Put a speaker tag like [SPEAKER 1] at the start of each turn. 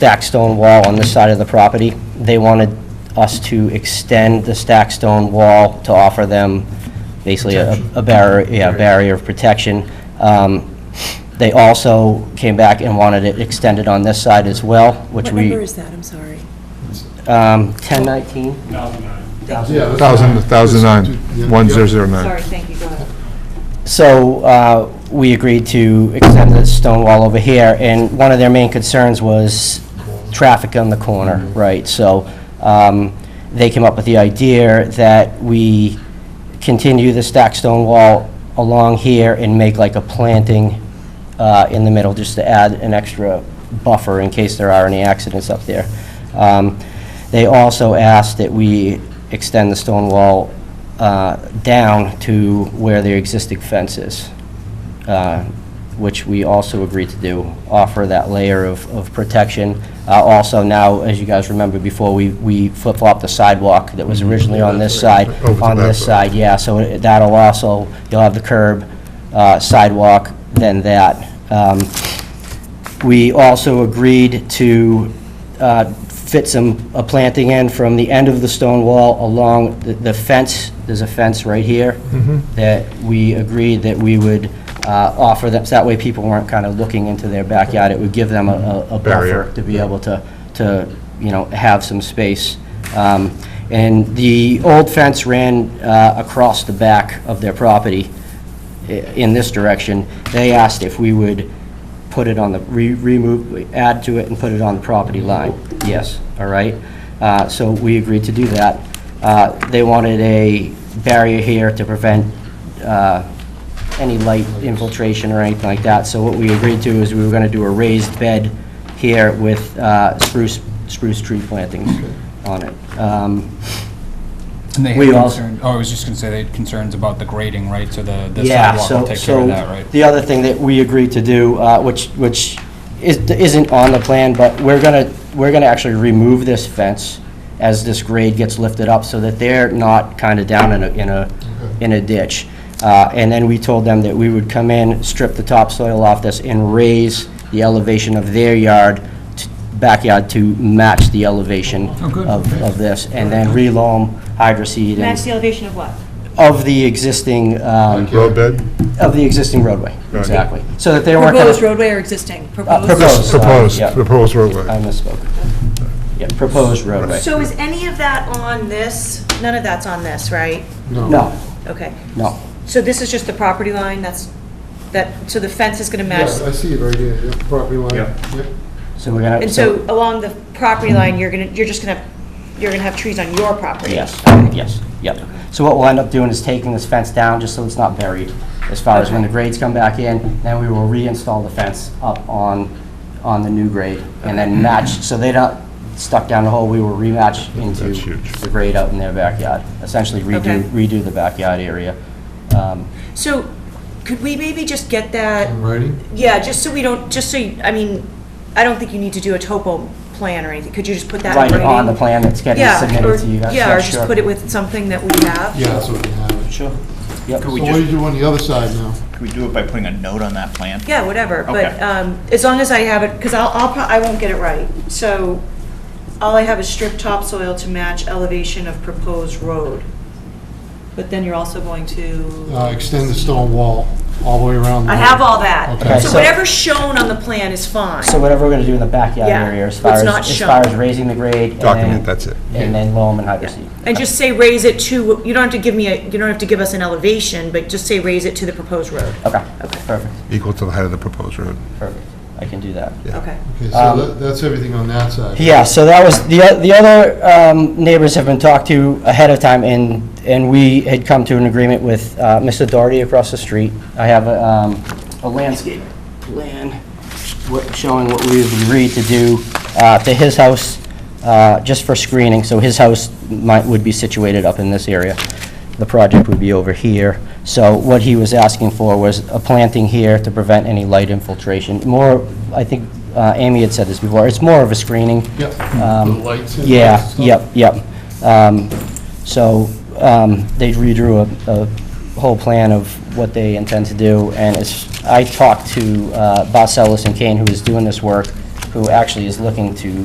[SPEAKER 1] stacked stone wall on this side of the property. They wanted us to extend the stacked stone wall to offer them basically a a barrier, yeah, a barrier of protection. Um, They also came back and wanted it extended on this side as well, which
[SPEAKER 2] What number
[SPEAKER 1] we,
[SPEAKER 2] is that? I'm sorry.
[SPEAKER 1] um, 1019?
[SPEAKER 3] Yeah,
[SPEAKER 4] Thousand, thousand nine, one zero zero
[SPEAKER 5] Sorry,
[SPEAKER 4] nine.
[SPEAKER 5] thank you, go ahead.
[SPEAKER 1] So uh, we agreed to extend the stone wall over here, and one of their main concerns was traffic on the corner, right? So um, they came up with the idea that we continue the stacked stone wall along here and make like a planting uh, in the middle, just to add an extra buffer in case there are any accidents up there. Um, They also asked that we extend the stone wall uh, down to where the existing fence is, uh, which we also agreed to do, offer that layer of, of protection. Uh, Also now, as you guys remember before, we, we flip-flopped the sidewalk that was originally on this side,
[SPEAKER 4] Over to
[SPEAKER 1] on
[SPEAKER 4] that
[SPEAKER 1] this
[SPEAKER 4] side.
[SPEAKER 1] side, yeah, so it- that'll also, you'll have the curb, uh, sidewalk, then that. Um, we also agreed to uh, fit some, a planting in from the end of the stone wall along the- the fence, there's a fence right here, that we agreed that we would uh, offer them, so that way people weren't kind of looking into their backyard. It would give them a- a a
[SPEAKER 4] Barrier.
[SPEAKER 1] buffer to be able to, to, you know, have some space. Um, And the old fence ran uh, across the back of their property i- in this direction. They asked if we would put it on the, re- remove, add to it and put it on the property line. Yes, all right? Uh, So we agreed to do that. Uh, They wanted a barrier here to prevent uh, any light infiltration or anything like that. So what we agreed to is we were going to do a raised bed here with uh, spruce, spruce tree plantings on it. Um,
[SPEAKER 6] And they
[SPEAKER 1] We
[SPEAKER 6] had
[SPEAKER 1] also-
[SPEAKER 6] concerns, oh, I was just gonna say they had concerns about the grading, right, so the, the
[SPEAKER 1] Yeah,
[SPEAKER 6] sidewalk
[SPEAKER 1] so
[SPEAKER 6] will take care of that, right?
[SPEAKER 1] So, the other thing that we agreed to do, uh, which, which is- isn't on the plan, but we're gonna, we're gonna actually remove this fence as this grade gets lifted up, so that they're not kind of down in a, in a, in a ditch. Uh, And then we told them that we would come in, strip the topsoil off this, and raise the elevation of their yard, t- backyard to match the elevation
[SPEAKER 6] Oh, good,
[SPEAKER 1] of,
[SPEAKER 6] okay.
[SPEAKER 1] of this, and then reloam, hydroseed,
[SPEAKER 5] Match
[SPEAKER 1] and,
[SPEAKER 5] the elevation of what?
[SPEAKER 1] of the existing, um,
[SPEAKER 4] Road bed?
[SPEAKER 1] of the existing roadway,
[SPEAKER 4] Right.
[SPEAKER 1] exactly. So that they weren't gonna...
[SPEAKER 2] Proposed roadway or existing?
[SPEAKER 1] proposed.
[SPEAKER 2] Proposed.
[SPEAKER 1] sorry,
[SPEAKER 4] Proposed,
[SPEAKER 1] yeah.
[SPEAKER 4] proposed
[SPEAKER 1] I
[SPEAKER 4] roadway.
[SPEAKER 1] misspoke. Yeah, proposed roadway.
[SPEAKER 5] So is any of that on this? None of that's on this, right?
[SPEAKER 1] No,
[SPEAKER 5] Okay.
[SPEAKER 1] no.
[SPEAKER 5] So this is just the property line, that's, that, so the fence is gonna match,
[SPEAKER 3] I see it right here, yeah, property line. Yep.
[SPEAKER 1] So we're gonna...
[SPEAKER 5] and so along the property line, you're gonna, you're just gonna, you're gonna have trees on your property?
[SPEAKER 1] Yes, yes, yep. So what we'll end up doing is taking this fence down, just so it's not buried, as far as when the grades come back in, then we will reinstall the fence up on, on the new grade, and then match, so they're not stuck down the hole, we will rematch into
[SPEAKER 4] That's huge.
[SPEAKER 1] the grade out in their backyard, essentially redo,
[SPEAKER 5] Okay.
[SPEAKER 1] redo the backyard area. Um,
[SPEAKER 5] So could we maybe just get that,
[SPEAKER 3] In writing?
[SPEAKER 5] yeah, just so we don't, just so, you- I mean, I don't think you need to do a topo plan or anything. Could you just put that in
[SPEAKER 1] Right
[SPEAKER 5] writing?
[SPEAKER 1] on the plan that's getting
[SPEAKER 5] Yeah, or-
[SPEAKER 1] submitted to you guys.
[SPEAKER 5] Yeah, or just
[SPEAKER 1] sure.
[SPEAKER 5] put it with something that we have?
[SPEAKER 3] Yeah, that's what we have.
[SPEAKER 1] Sure. Yep.
[SPEAKER 3] So
[SPEAKER 7] we
[SPEAKER 3] what do
[SPEAKER 7] just-
[SPEAKER 3] you do on the other side now?
[SPEAKER 7] Can we do it by putting a note on that plan?
[SPEAKER 5] Yeah, whatever, but
[SPEAKER 7] Okay.
[SPEAKER 5] um, as long as I have it, because I'll, I'll, pro- I won't get it right. So all I have is strip topsoil to match elevation of proposed road. But then you're also going to,
[SPEAKER 3] Uh, Extend the stone wall all the way around. the
[SPEAKER 5] I
[SPEAKER 3] road.
[SPEAKER 5] have all that.
[SPEAKER 3] Okay.
[SPEAKER 5] So
[SPEAKER 1] so-
[SPEAKER 5] whatever's shown on the plan is fine.
[SPEAKER 1] So whatever we're gonna do in the backyard
[SPEAKER 5] Yeah,
[SPEAKER 1] area, as far
[SPEAKER 5] what's
[SPEAKER 1] as,
[SPEAKER 5] not
[SPEAKER 1] as
[SPEAKER 5] shown.
[SPEAKER 1] far as raising the grade. and then-
[SPEAKER 4] Document, that's it.
[SPEAKER 1] And then loam and hydroseed.
[SPEAKER 5] And just say raise it to, you don't have to give me a, you don't have to give us an elevation, but just say raise it to the proposed road.
[SPEAKER 1] Okay, perfect,
[SPEAKER 4] Equal to the height of the proposed road.
[SPEAKER 1] perfect. I can do that.
[SPEAKER 5] Okay.
[SPEAKER 3] Okay, so that- that's everything on that side.
[SPEAKER 1] Um, Yeah, so that was, the, o- the other um, neighbors have been talked to ahead of time, and, and we had come to an agreement with uh, Mr. Doherty across the street. I have a, um, a landscape plan wh- showing what we've agreed to do uh, to his house, uh, just for screening, so his house might, would be situated up in this area. The project would be over here. So what he was asking for was a planting here to prevent any light infiltration. More, I think uh, Amy had said this before, it's more of a screening.
[SPEAKER 3] Yep.
[SPEAKER 1] Um,
[SPEAKER 3] The lights and
[SPEAKER 1] Yeah,
[SPEAKER 3] stuff.
[SPEAKER 1] yep, yep. Um, So um, they redrew a, a whole plan of what they intend to do, and it's, I talked to uh, Bocellis and Kane, who is doing this work, who actually is looking to